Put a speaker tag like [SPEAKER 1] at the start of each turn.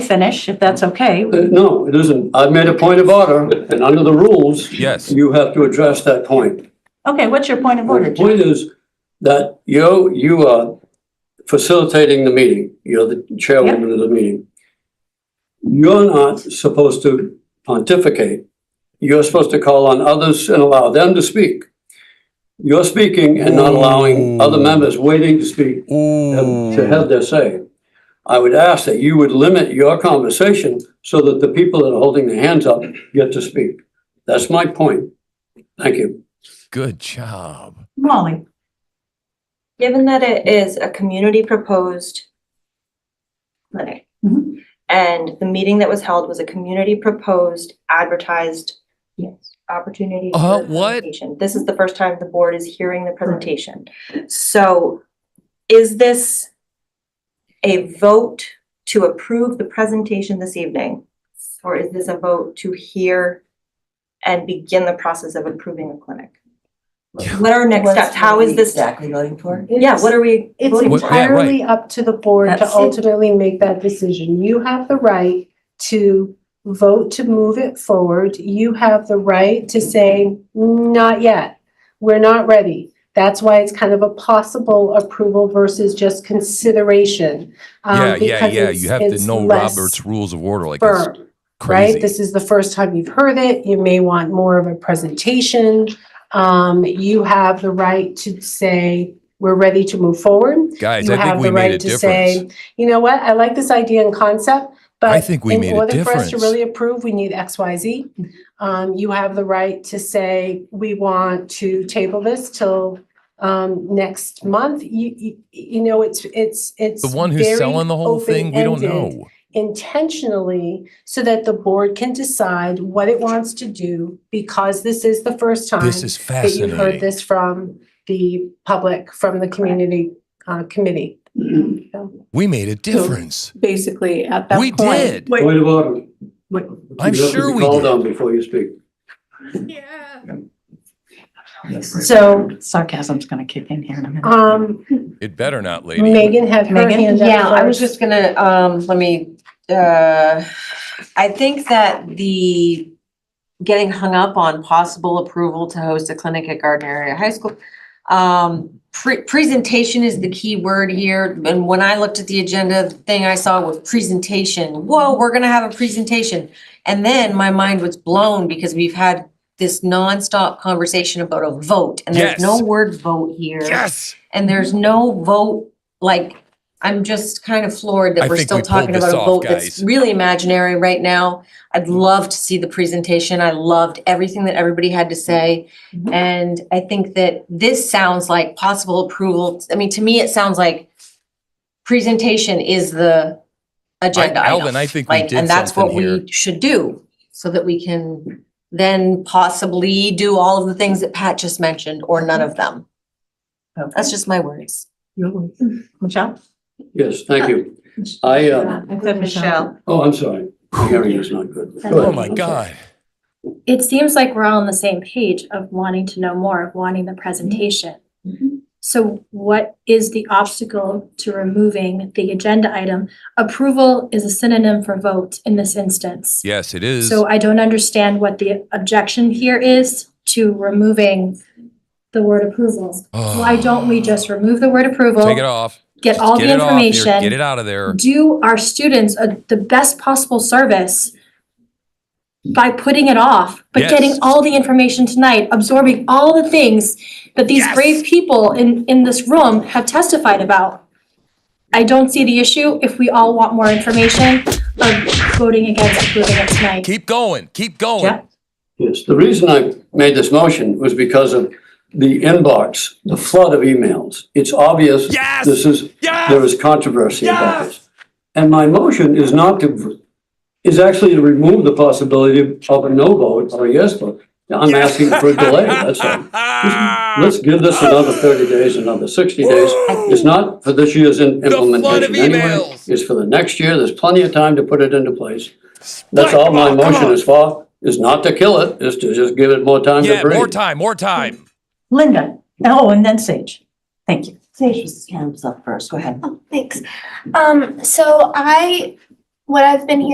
[SPEAKER 1] finish, if that's okay.
[SPEAKER 2] Uh, No, it isn't. I made a point of order, and under the rules.
[SPEAKER 3] Yes.
[SPEAKER 2] You have to address that point.
[SPEAKER 1] Okay, what's your point of
[SPEAKER 2] Well, The
[SPEAKER 1] order?
[SPEAKER 2] point is that you, you are facilitating the meeting. You're the chairwoman of the meeting. You're not supposed to pontificate. You're supposed to call on others and allow them to speak. You're speaking and not allowing other members waiting to speak have- to have their say. I would ask that you would limit your conversation so that the people that are holding their hands up get to speak. That's my point. Thank you.
[SPEAKER 3] Good job.
[SPEAKER 1] Molly,
[SPEAKER 4] Given that it is a community proposed clinic,
[SPEAKER 1] Mhm.
[SPEAKER 4] and the meeting that was held was a community proposed advertised
[SPEAKER 1] Yes.
[SPEAKER 4] opportunity.
[SPEAKER 3] Uh,
[SPEAKER 4] for
[SPEAKER 3] what?
[SPEAKER 4] presentation. This is the first time the board is hearing the presentation. So is this a vote to approve the presentation this evening? Or is this a vote to hear and begin the process of approving a clinic? What are our next
[SPEAKER 5] What's-
[SPEAKER 4] steps? How
[SPEAKER 5] what are
[SPEAKER 4] is
[SPEAKER 5] we
[SPEAKER 4] this?
[SPEAKER 5] Exactly voting for?
[SPEAKER 4] Yeah, what are we
[SPEAKER 6] It's
[SPEAKER 4] voting
[SPEAKER 3] What-
[SPEAKER 4] for?
[SPEAKER 3] yeah, right.
[SPEAKER 6] entirely up to the board to
[SPEAKER 1] That's it.
[SPEAKER 6] ultimately make that decision. You have the right to vote to move it forward. You have the right to say, not yet. We're not ready. That's why it's kind of a possible approval versus just consideration. um,
[SPEAKER 3] Yeah, yeah,
[SPEAKER 6] because
[SPEAKER 3] yeah.
[SPEAKER 6] it's-
[SPEAKER 3] You have to
[SPEAKER 6] it's
[SPEAKER 3] know
[SPEAKER 6] less
[SPEAKER 3] Robert's Rules of Order. Like it's
[SPEAKER 6] Firm, right?
[SPEAKER 3] crazy.
[SPEAKER 6] This is the first time you've heard it. You may want more of a presentation. Um, you have the right to say, we're ready to move forward
[SPEAKER 3] Guys,
[SPEAKER 6] you
[SPEAKER 3] I think
[SPEAKER 6] have
[SPEAKER 3] we
[SPEAKER 6] the
[SPEAKER 3] made a
[SPEAKER 6] right to say,
[SPEAKER 3] difference.
[SPEAKER 6] you know what, I like this idea and concept,
[SPEAKER 3] I
[SPEAKER 6] but
[SPEAKER 3] think we
[SPEAKER 6] in
[SPEAKER 3] made a
[SPEAKER 6] order for us
[SPEAKER 3] difference.
[SPEAKER 6] to really approve, we need X, Y, Z. Um, you have the right to say, we want to table this till, um, next month. You, you, you know, it's, it's, it's.
[SPEAKER 3] The one who's
[SPEAKER 6] very
[SPEAKER 3] selling the whole thing, we don't
[SPEAKER 6] open-ended
[SPEAKER 3] know.
[SPEAKER 6] Intentionally, so that the board can decide what it wants to do, because this is the first time
[SPEAKER 3] This is
[SPEAKER 6] that you heard
[SPEAKER 3] fascinating.
[SPEAKER 6] this from the public, from the community, uh, committee.
[SPEAKER 3] We made a difference.
[SPEAKER 7] basically at that
[SPEAKER 3] We
[SPEAKER 7] point.
[SPEAKER 3] did.
[SPEAKER 2] Point of order.
[SPEAKER 7] Wait.
[SPEAKER 3] I'm
[SPEAKER 2] You have to
[SPEAKER 3] sure
[SPEAKER 2] be
[SPEAKER 3] we
[SPEAKER 2] Called
[SPEAKER 3] did.
[SPEAKER 2] on before you speak.
[SPEAKER 6] So,
[SPEAKER 1] sarcasm's gonna kick in here in a
[SPEAKER 7] Uh-huh.
[SPEAKER 1] minute.
[SPEAKER 6] um,
[SPEAKER 3] It better not, lady.
[SPEAKER 6] Megan had her
[SPEAKER 1] Megan?
[SPEAKER 6] hand up
[SPEAKER 5] Yeah, I was just
[SPEAKER 6] first.
[SPEAKER 5] gonna, um, let me, uh, I think that the getting hung up on possible approval to host a clinic at Gardner Area High School. Um, pre- presentation is the key word here, and when I looked at the agenda, the thing I saw was presentation. Whoa, we're gonna have a presentation. And then my mind was blown because we've had this nonstop conversation about a vote, and there's no
[SPEAKER 3] Yes.
[SPEAKER 5] word vote here.
[SPEAKER 3] Yes.
[SPEAKER 5] And there's no vote, like, I'm just kind of floored
[SPEAKER 3] I
[SPEAKER 5] that we're
[SPEAKER 3] think
[SPEAKER 5] still
[SPEAKER 3] we pulled
[SPEAKER 5] talking about
[SPEAKER 3] this
[SPEAKER 5] a
[SPEAKER 3] off,
[SPEAKER 5] vote
[SPEAKER 3] guys.
[SPEAKER 5] that's really imaginary right now. I'd love to see the presentation. I loved everything that everybody had to say.
[SPEAKER 1] Mhm.
[SPEAKER 5] And I think that this sounds like possible approval. I mean, to me, it sounds like presentation is the agenda item.
[SPEAKER 3] Alvin, I think we
[SPEAKER 5] Like,
[SPEAKER 3] did
[SPEAKER 5] and that's what
[SPEAKER 3] something here.
[SPEAKER 5] we should do so that we can then possibly do all of the things that Pat just mentioned or none of them. That's just my words.
[SPEAKER 1] Oh, Michelle?
[SPEAKER 2] Yes, thank you. I, uh,
[SPEAKER 1] I said Michelle.
[SPEAKER 2] oh, I'm sorry. My hearing is not good. Go
[SPEAKER 3] Oh
[SPEAKER 2] ahead.
[SPEAKER 3] my God.
[SPEAKER 8] it seems like we're all on the same page of wanting to know more, of wanting the presentation. So what is the obstacle to removing the agenda item? Approval is a synonym for vote in this instance.
[SPEAKER 3] Yes, it is.
[SPEAKER 8] So I don't understand what the objection here is to removing the word approval. Why don't we just remove the word approval?
[SPEAKER 3] Oh. Take it off.
[SPEAKER 8] Get all
[SPEAKER 3] Get
[SPEAKER 8] the
[SPEAKER 3] it off here.
[SPEAKER 8] information
[SPEAKER 3] Get it out of there.
[SPEAKER 8] do our students a, the best possible service by putting it off, but
[SPEAKER 3] Yes.
[SPEAKER 8] getting all the information tonight, absorbing all the things that these
[SPEAKER 3] Yes.
[SPEAKER 8] brave people in, in this room have testified about. I don't see the issue if we all want more information of voting against approving it tonight.
[SPEAKER 3] Keep going. Keep
[SPEAKER 8] Yeah.
[SPEAKER 3] going.
[SPEAKER 2] Yes, the reason I made this motion was because of the inbox, the flood of emails. It's obvious.
[SPEAKER 3] Yes!
[SPEAKER 2] This is, there
[SPEAKER 3] Yes.
[SPEAKER 2] is controversy about
[SPEAKER 3] Yes!
[SPEAKER 2] this. And my motion is not to, is actually to remove the possibility of a no vote or a yes vote. I'm asking for a delay, that's all. Let's give this another
[SPEAKER 3] Ah.
[SPEAKER 2] thirty days, another sixty days. It's not for this year's in-
[SPEAKER 3] flood of
[SPEAKER 2] implementation anyway.
[SPEAKER 3] emails.
[SPEAKER 2] It's for the next year. There's plenty of time to put it into place. That's all my
[SPEAKER 3] Come on, come
[SPEAKER 2] motion
[SPEAKER 3] on.
[SPEAKER 2] is for, is not to kill it, is to just give it more time to
[SPEAKER 3] Yeah, more
[SPEAKER 2] breathe.
[SPEAKER 3] time, more time.
[SPEAKER 1] Linda, oh, and then Sage. Thank you.
[SPEAKER 5] Sage was hands up first. Go ahead.
[SPEAKER 9] Thanks. Um, so I what I've been hearing